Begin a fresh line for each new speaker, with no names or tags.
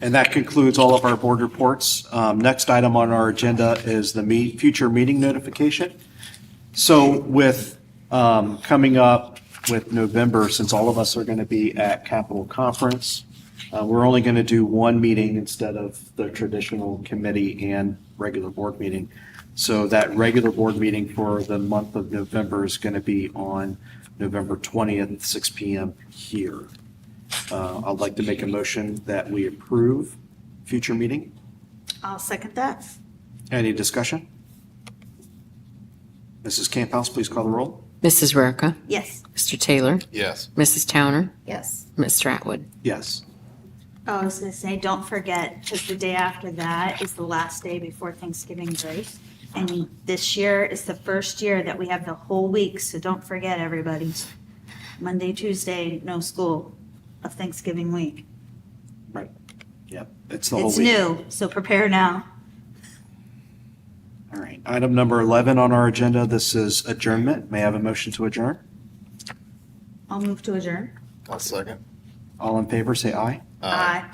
And that concludes all of our board reports. Um, Next item on our agenda is the me- future meeting notification. So with um, coming up with November, since all of us are going to be at Capitol Conference, uh, we're only going to do one meeting instead of the traditional committee and regular board meeting. So that regular board meeting for the month of November is going to be on November 20th, 6 PM here. Uh, I'd like to make a motion that we approve future meeting.
I'll second that.
Any discussion? Mrs. Camp House, please call the roll.
Mrs. Rarica,
Yes.
Mr. Taylor,
Yes.
Mrs. Towner,
Yes.
Mr. Atwood.
Yes.
Oh, I was going to say, don't forget, because the day after that is the last day before Thanksgiving break. And this year is the first year that we have the whole week, so don't forget, everybody. Monday, Tuesday, no school of Thanksgiving week.
Right. Yep. It's the whole week.
It's new, so prepare now.
All right. Item number 11 on our agenda, this is adjournment. May I have a motion to adjourn?
I'll move to adjourn.
I'll second.
All in favor, say aye.
Aye.